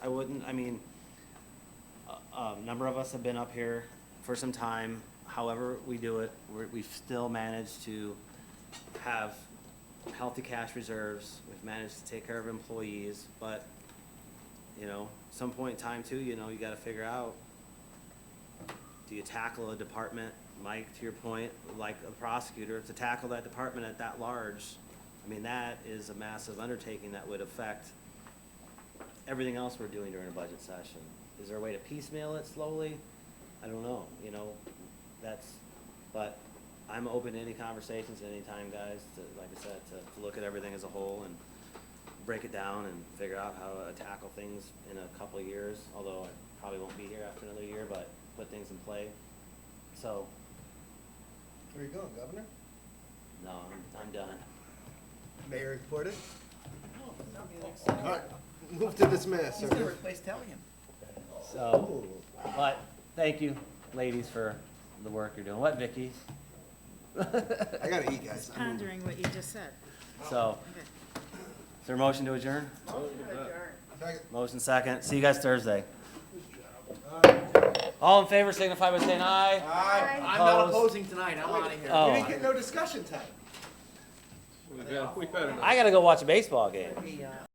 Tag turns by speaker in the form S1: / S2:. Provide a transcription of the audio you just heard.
S1: I wouldn't, I mean, a, a number of us have been up here for some time. However we do it, we're, we've still managed to have healthy cash reserves. We've managed to take care of employees, but, you know, some point in time too, you know, you gotta figure out, do you tackle a department, Mike, to your point, like a prosecutor, to tackle that department at that large? I mean, that is a massive undertaking that would affect everything else we're doing during a budget session. Is there a way to piecemeal it slowly? I don't know, you know, that's, but I'm open to any conversations at any time, guys, to, like I said, to, to look at everything as a whole and break it down and figure out how to tackle things in a couple of years, although I probably won't be here after another year, but put things in play. So,
S2: Where are you going, Governor?
S1: no, I'm, I'm done.
S2: Mayor reported.
S3: He's
S2: All right, move to dismiss.
S3: gonna replace Tellian.
S1: So, but, thank you, ladies, for the work you're doing. What, Vicky?
S2: I gotta eat, guys. I'm-
S4: pondering what you just said.
S1: So, is there a motion to adjourn?
S2: Second.
S1: Motion second. See you guys Thursday. All in favor signify by saying aye.
S3: I'm not
S1: Opposed?
S3: opposing tonight, I'm out of here.
S2: We didn't
S1: Oh,
S2: get no discussion time.
S5: We better not.
S1: I gotta go watch a baseball game.